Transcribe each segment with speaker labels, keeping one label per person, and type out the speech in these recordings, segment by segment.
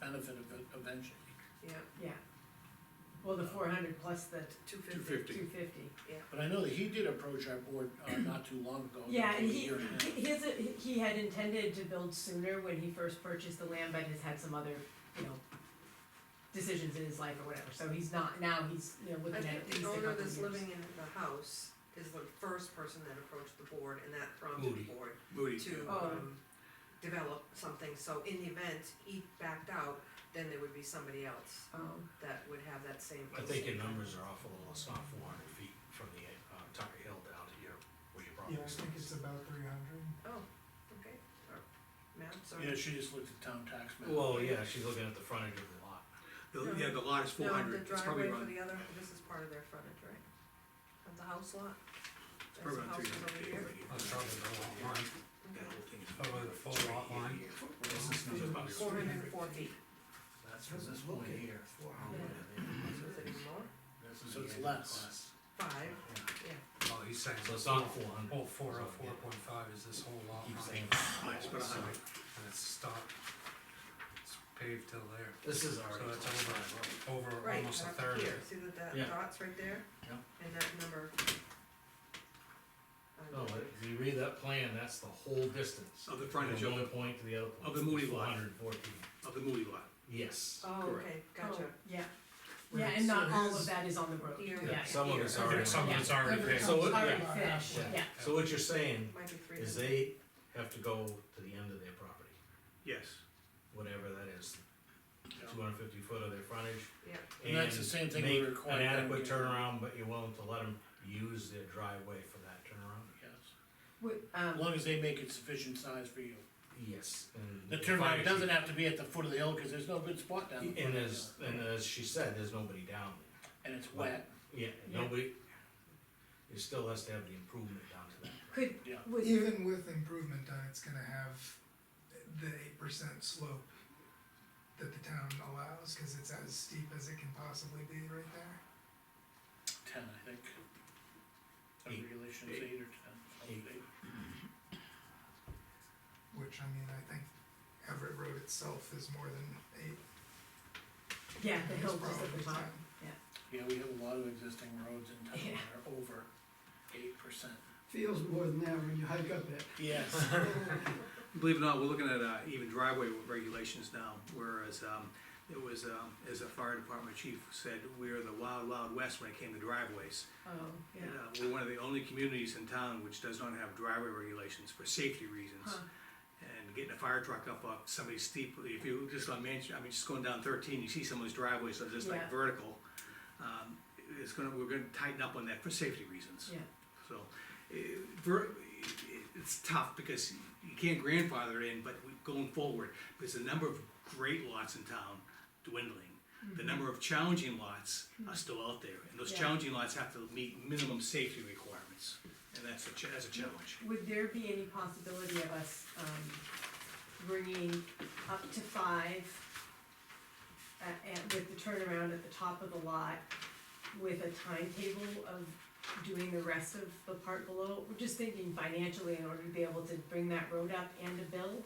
Speaker 1: benefit of it eventually.
Speaker 2: yeah,
Speaker 3: yeah. Well, the four hundred plus the
Speaker 2: two
Speaker 4: two
Speaker 2: fifty,
Speaker 4: fifty.
Speaker 3: two fifty.
Speaker 1: But I know that he did approach our board, uh, not too long ago.
Speaker 3: Yeah,
Speaker 1: a
Speaker 3: and he,
Speaker 1: year and a half.
Speaker 3: his, he had intended to build sooner when he first purchased the land, but has had some other, you know, decisions in his life or whatever, so he's not, now he's, you know,
Speaker 2: I
Speaker 3: looking at
Speaker 2: think
Speaker 3: at least a
Speaker 2: the
Speaker 3: couple
Speaker 2: owner that's
Speaker 3: years.
Speaker 2: living in the house is the first person that approached the board, and that prompted
Speaker 4: Moody.
Speaker 2: the board
Speaker 4: Moody.
Speaker 2: to,
Speaker 3: Oh.
Speaker 2: um, develop something, so in the event he backed out, then there would be somebody else
Speaker 3: Um,
Speaker 2: that would have that same.
Speaker 4: I think your numbers are off a little, it's not four hundred feet from the, uh, top of hill down to your, where your property
Speaker 5: Yeah, I
Speaker 4: is.
Speaker 5: think it's about three hundred.
Speaker 2: Oh, okay, Or- ma'am, sorry.
Speaker 1: Yeah, she just looked at town tax map.
Speaker 4: Well, yeah, she's looking at the frontage of the lot.
Speaker 2: No.
Speaker 6: The- Yeah, the lot is four
Speaker 2: No,
Speaker 6: hundred,
Speaker 2: the
Speaker 6: it's
Speaker 2: driveway
Speaker 6: probably
Speaker 2: for
Speaker 6: around,
Speaker 2: the other, this is part of their frontage, right? Of the house lot?
Speaker 6: it's
Speaker 2: There's
Speaker 6: probably around three
Speaker 2: houses over
Speaker 6: hundred.
Speaker 2: here.
Speaker 6: That whole thing is.
Speaker 4: Probably the full lot line. This is
Speaker 6: It's
Speaker 4: about
Speaker 6: about
Speaker 2: Four hundred and four feet,
Speaker 4: That's from this point here.
Speaker 2: is it even more?
Speaker 1: So it's less.
Speaker 2: Five, yeah.
Speaker 4: Oh, he's saying. So it's not four hundred.
Speaker 5: Oh, four oh four point five is this whole lot
Speaker 4: Keep
Speaker 5: line,
Speaker 4: saying.
Speaker 6: It's about a hundred.
Speaker 5: and it's stopped, it's paved till there,
Speaker 4: This is already.
Speaker 5: so that's over, over
Speaker 2: Right,
Speaker 5: almost a
Speaker 2: up
Speaker 5: third. of
Speaker 2: here,
Speaker 5: it.
Speaker 2: see that that
Speaker 4: Yeah.
Speaker 2: dot's right there?
Speaker 4: Yep.
Speaker 2: And that number. I
Speaker 4: No,
Speaker 2: don't
Speaker 5: Oh,
Speaker 2: know.
Speaker 4: but if you read that plan, that's the whole distance.
Speaker 6: Of the
Speaker 4: From
Speaker 6: frontage of,
Speaker 4: one point to the other point.
Speaker 6: Oh, of the Moody lot.
Speaker 4: Four hundred and fourteen,
Speaker 6: the- of the Moody lot.
Speaker 4: yes.
Speaker 2: Oh,
Speaker 6: Correct.
Speaker 2: okay, gotcha.
Speaker 3: oh, Yeah,
Speaker 5: Where
Speaker 3: yeah,
Speaker 5: it's-
Speaker 3: and not
Speaker 5: it
Speaker 3: all of
Speaker 5: is-
Speaker 3: that is on the road, yeah,
Speaker 2: Here,
Speaker 3: yeah.
Speaker 4: Some of
Speaker 2: here.
Speaker 4: it's
Speaker 5: Okay,
Speaker 4: already-
Speaker 5: Some of it's already
Speaker 3: Every-
Speaker 5: paved.
Speaker 4: So it-
Speaker 3: Already
Speaker 4: yeah.
Speaker 3: finished,
Speaker 1: Yeah.
Speaker 3: yeah.
Speaker 4: So what you're saying
Speaker 2: Might be three
Speaker 4: is
Speaker 2: hundred.
Speaker 4: they have to go to the end of their property,
Speaker 6: Yes,
Speaker 4: whatever that is,
Speaker 1: Yeah.
Speaker 4: two hundred fifty foot of their frontage.
Speaker 2: Yeah,
Speaker 1: And that's the same thing we
Speaker 4: make
Speaker 1: require
Speaker 4: An
Speaker 1: them
Speaker 4: adequate
Speaker 1: to-
Speaker 4: turnaround, but you're willing to let them use their driveway for that turnaround?
Speaker 1: Yes.
Speaker 3: Wi-
Speaker 1: As
Speaker 3: um,
Speaker 1: long as they make it sufficient size for you.
Speaker 4: Yes, and.
Speaker 1: The
Speaker 4: frontage-
Speaker 1: turnaround doesn't have to be at the foot of the hill, cause there's no good spot down. the
Speaker 4: And
Speaker 1: front.
Speaker 4: as, and as she said, there's nobody down
Speaker 1: And it's wet,
Speaker 4: there. Yeah,
Speaker 3: Yeah.
Speaker 4: nobody, it still has to have the improvement down to that.
Speaker 3: could,
Speaker 1: yeah.
Speaker 3: would,
Speaker 5: Even with improvement done, it's gonna have the eight percent slope that the town allows, cause it's as steep as it can possibly be right there.
Speaker 1: ten, I think. The
Speaker 4: Eight.
Speaker 1: regulations
Speaker 4: Eight.
Speaker 1: eight or ten.
Speaker 4: Eight.
Speaker 5: Which, I mean, I think Everett Road itself is more than eight.
Speaker 3: yeah, the
Speaker 5: It's
Speaker 3: hill just at
Speaker 5: probably
Speaker 3: the top,
Speaker 5: 10.
Speaker 1: Yeah, we have a lot of existing roads in town
Speaker 3: Yeah.
Speaker 1: that are over eight percent.
Speaker 7: feels more than that when you hike up it.
Speaker 1: Yes.
Speaker 6: believe it or not, we're looking at, uh, even driveway regulations now, whereas, um, it was, um, as a fire department chief said, we're the wild, wild west when it came to driveways.
Speaker 3: oh, yeah.
Speaker 6: And, uh, we're one of the only communities in town which does not have driveway regulations for safety reasons.
Speaker 3: Huh.
Speaker 6: and getting a fire truck up off somebody's steep, if you, just on Manchester, I mean, just going down thirteen, you see someone's driveway, so just
Speaker 3: Yeah.
Speaker 6: like vertical. Um, it's gonna, we're gonna tighten up on that for safety reasons.
Speaker 3: Yeah.
Speaker 6: So, eh, ver, eh, it's tough because you can't grandfather in, but we- going forward, because the number of great lots in town dwindling. The number of challenging lots are still out there, and those
Speaker 3: Mm-hmm. Yeah.
Speaker 6: challenging lots have to meet minimum safety requirements, and that's a, cha- that's a challenge.
Speaker 3: Would there be any possibility of us, um, bringing up to five uh, and with the turnaround at the top of the lot, with a timetable of doing the rest of the part below? We're just thinking financially in order to be able to bring that road up and to build.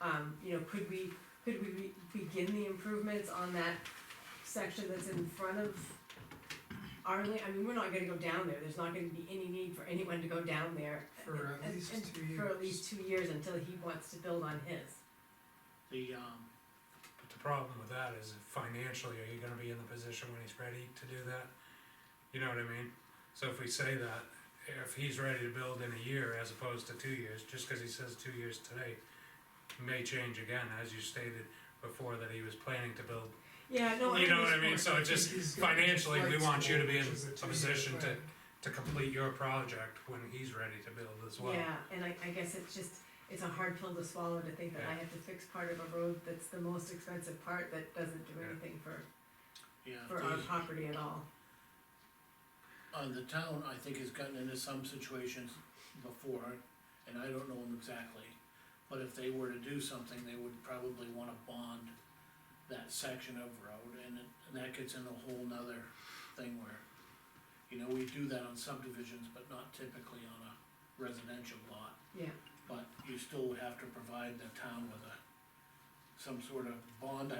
Speaker 3: Um, you know, could we, could we re- begin the improvements on that section that's in front of our land? I mean, we're not gonna go down there, there's not gonna be any need for anyone to go down there.
Speaker 5: For at
Speaker 3: and-
Speaker 5: least
Speaker 3: and
Speaker 5: two
Speaker 3: For at
Speaker 5: years.
Speaker 3: least two years until he wants to build on his.
Speaker 1: The, um,
Speaker 8: But the problem with that is financially, are you gonna be in the position when he's ready to do that? You know what I mean? So if we say that, if he's ready to build in a year as opposed to two years, just cause he says two years today, may change again, as you stated before, that he was planning to build.
Speaker 3: Yeah, no, I
Speaker 8: You know what I mean?
Speaker 3: understand.
Speaker 8: So it just
Speaker 5: He's gonna be
Speaker 8: financially, we want you to be in
Speaker 5: flexible, which is
Speaker 8: a
Speaker 5: two-year
Speaker 8: position to,
Speaker 5: plan.
Speaker 8: to complete your project when he's ready to build as well.
Speaker 3: Yeah, and I, I guess it's just, it's a hard pill to swallow to think that I
Speaker 8: Yeah.
Speaker 3: have to fix part of a road that's the most expensive part that doesn't do
Speaker 8: Yeah.
Speaker 3: anything for,
Speaker 1: yeah.
Speaker 3: for
Speaker 1: the-
Speaker 3: our property at all.
Speaker 1: Uh, the town, I think, has gotten into some situations before, and I don't know them exactly. But if they were to do something, they would probably wanna bond that section of road, and, it- and that gets in a whole nother thing where, you know, we do that on subdivisions, but not typically on a residential lot.
Speaker 3: Yeah.
Speaker 1: But you still would have to provide the town with a, some sort of bond, I